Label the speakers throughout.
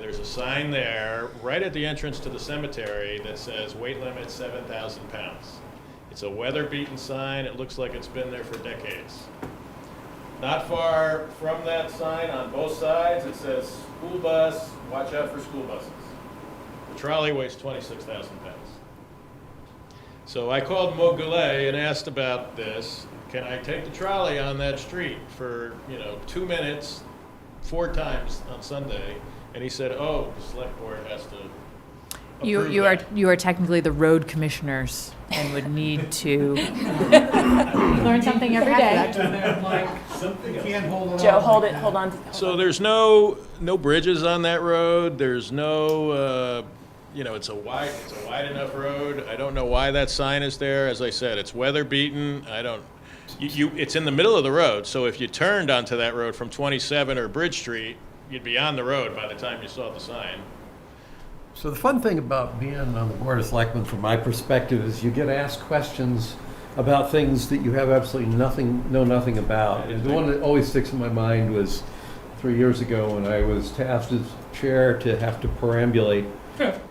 Speaker 1: There's a sign there, right at the entrance to the cemetery, that says weight limit seven thousand pounds. It's a weather-beaten sign, it looks like it's been there for decades. Not far from that sign, on both sides, it says school bus, watch out for school buses. The trolley weighs twenty-six thousand pounds. So I called Mo Goulet and asked about this. Can I take the trolley on that street for, you know, two minutes, four times on Sunday? And he said, oh, the select board has to
Speaker 2: You,
Speaker 1: approve
Speaker 2: you are,
Speaker 1: that."
Speaker 2: you are technically the road commissioners and would need to learn something every day.
Speaker 3: Something can't hold it
Speaker 4: Joe,
Speaker 3: off
Speaker 4: hold
Speaker 3: like
Speaker 4: it,
Speaker 3: that.
Speaker 4: hold on.
Speaker 1: So there's no, no bridges on that road, there's no, uh, you know, it's a wide, it's a wide enough road. I don't know why that sign is there, as I said, it's weather beaten, I don't, you, you, it's in the middle of the road, so if you turned onto that road from 27 or Bridge Street, you'd be on the road by the time you saw the sign.
Speaker 5: So the fun thing about being on the Board of Selectmen, from my perspective, is you get asked questions about things that you have absolutely nothing, know nothing about. And the one that always sticks in my mind was three years ago when I was tasked as chair to have to perambulate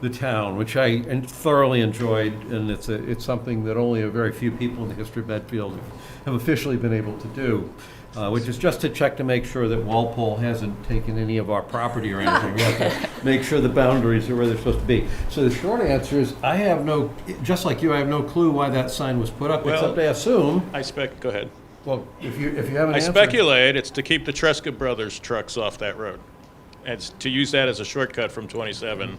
Speaker 5: the town, which I en- thoroughly enjoyed, and it's, a- it's something that only a very few people in the history of Medfield have officially been able to do, uh, which is just to check to make sure that Walpole hasn't taken any of our property or anything. We have to Make sure the boundaries are where they're supposed to be. So the short answer is, I have no, just like you, I have no clue why that sign was put up,
Speaker 1: Well-
Speaker 5: except I assume,
Speaker 1: I spec, go ahead.
Speaker 5: well, if you, if you have an
Speaker 1: I
Speaker 5: answer.
Speaker 1: speculate it's to keep the Tresca Brothers trucks off that road. And s- to use that as a shortcut from 27.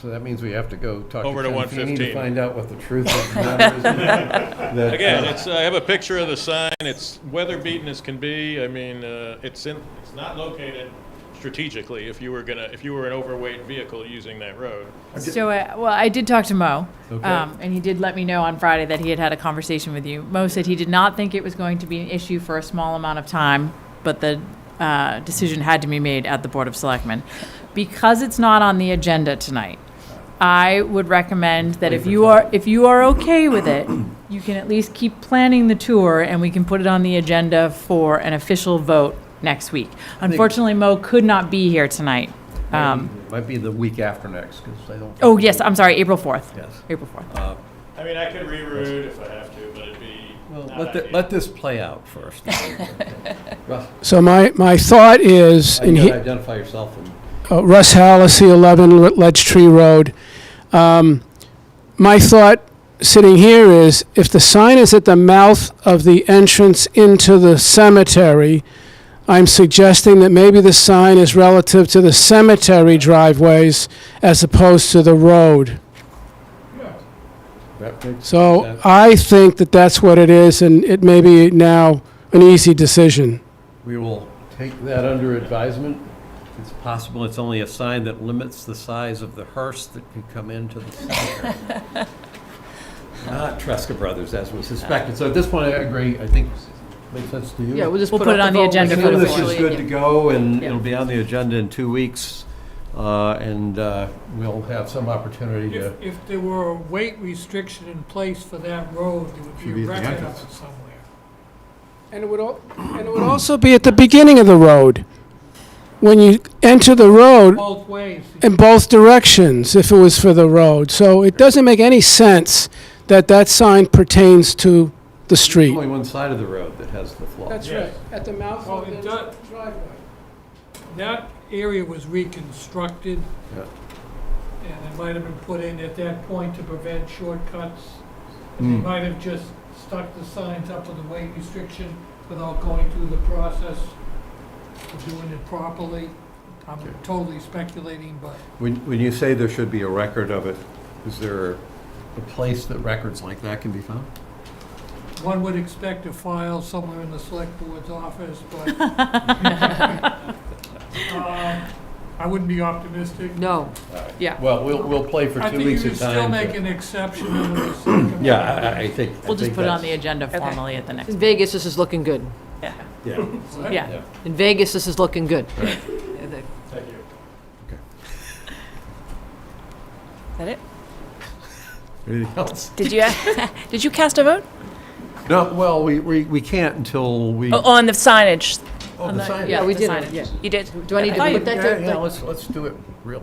Speaker 5: So that means we have to go talk to
Speaker 1: Over to
Speaker 5: Ken Feeney
Speaker 1: 115.
Speaker 5: to find out what the truth of the matter is. That,
Speaker 1: Again,
Speaker 5: uh,
Speaker 1: it's, I have a picture of the sign, it's weather beaten as can be, I mean, uh, it's in, it's not located strategically if you were gonna, if you were an overweight vehicle using that road.
Speaker 2: So, uh, well, I did talk to Mo,
Speaker 5: Okay.
Speaker 2: um, and he did let me know on Friday that he had had a conversation with you. Mo said he did not think it was going to be an issue for a small amount of time, but the uh, decision had to be made at the Board of Selectmen. Because it's not on the agenda tonight, I would recommend that if you are, if you are okay with it, you can at least keep planning the tour, and we can put it on the agenda for an official vote next week. Unfortunately, Mo could not be here tonight. Um,
Speaker 5: Might be the week after next, because I don't.
Speaker 2: Oh, yes, I'm sorry, April 4th.
Speaker 5: Yes.
Speaker 2: April 4th.
Speaker 5: Uh,
Speaker 1: I mean, I could reroute if I have to, but it'd be
Speaker 5: Well,
Speaker 1: not
Speaker 5: let, the-
Speaker 1: ideal.
Speaker 5: let this play out first. Russ,
Speaker 6: So my, my thought is,
Speaker 5: uh, you
Speaker 6: and
Speaker 5: gotta
Speaker 6: he,
Speaker 5: identify yourself and.
Speaker 6: uh, Russ Hallis, 11 Ledge Tree Road. Um, My thought, sitting here, is if the sign is at the mouth of the entrance into the cemetery, I'm suggesting that maybe the sign is relative to the cemetery driveways as opposed to the road.
Speaker 5: that makes-
Speaker 6: So uh,
Speaker 5: that-
Speaker 6: I think that that's what it is, and it may be now an easy decision.
Speaker 5: We will take that under advisement. It's possible it's only a sign that limits the size of the hearse that can come into the cemetery. Not Tresca Brothers, as we suspected. So at this point, I agree. I think, makes sense to you?
Speaker 4: just
Speaker 2: We'll put it on the agenda for
Speaker 5: Some of
Speaker 2: the
Speaker 5: this is
Speaker 2: fourth.
Speaker 5: good to go, and
Speaker 2: Yeah.
Speaker 5: it'll be on the agenda in two weeks, uh, and uh, we'll have some opportunity to.
Speaker 7: If, if there were a weight restriction in place for that road, there
Speaker 5: Should
Speaker 7: would
Speaker 5: be
Speaker 7: be
Speaker 5: at
Speaker 7: a
Speaker 5: the
Speaker 7: record
Speaker 5: entrance.
Speaker 7: of it somewhere.
Speaker 6: And it would, al- and it would also be at the beginning of the road. When you enter the road
Speaker 7: Both ways.
Speaker 6: in both directions, if it was for the road. So it doesn't make any sense that that sign pertains to the street.
Speaker 5: Only one side of the road that has the flaw.
Speaker 1: right,
Speaker 6: at the mouth
Speaker 7: Well, it does,
Speaker 6: driveway.
Speaker 7: that area was reconstructed,
Speaker 5: Yeah.
Speaker 7: and it might have been put in at that point to prevent shortcuts. They
Speaker 5: Mm.
Speaker 7: might have just stuck the signs up to the weight restriction without going through the process of doing it properly. I'm
Speaker 5: Okay.
Speaker 7: totally speculating, but
Speaker 5: When, when you say there should be a record of it, is there a place that records like that can be found?
Speaker 7: one would expect a file somewhere in the select board's office, but. um, I wouldn't be optimistic.
Speaker 4: No.
Speaker 2: Yeah.
Speaker 5: Well, we'll, we'll play for
Speaker 7: I
Speaker 5: two
Speaker 7: think you
Speaker 5: weeks
Speaker 7: could
Speaker 5: of
Speaker 7: still
Speaker 5: time.
Speaker 7: make
Speaker 5: to-
Speaker 7: an exception. under the circumstances.
Speaker 5: Yeah, I- I, I think. I
Speaker 2: We'll just
Speaker 5: think
Speaker 2: put it on the
Speaker 5: that's-
Speaker 2: agenda
Speaker 4: Okay.
Speaker 2: formally at the next,
Speaker 4: In Vegas, this is looking good.
Speaker 5: Yeah.
Speaker 2: yeah.
Speaker 4: In Vegas, this is looking good.
Speaker 5: Right.
Speaker 4: Yeah, the-
Speaker 1: Thank you.
Speaker 4: Is that it?
Speaker 5: Anything else?
Speaker 4: Did you, did you cast a vote?
Speaker 5: No, well, we, we, we can't until we.
Speaker 4: Oh, On the signage?
Speaker 5: Oh, the sign.
Speaker 4: Yeah, we
Speaker 2: the
Speaker 4: did,
Speaker 2: signage.
Speaker 4: it.
Speaker 2: yeah.
Speaker 4: you did. Do I need to
Speaker 2: Yeah.
Speaker 4: put that
Speaker 5: Yeah, yeah,
Speaker 4: to?
Speaker 5: let's, let's do it. real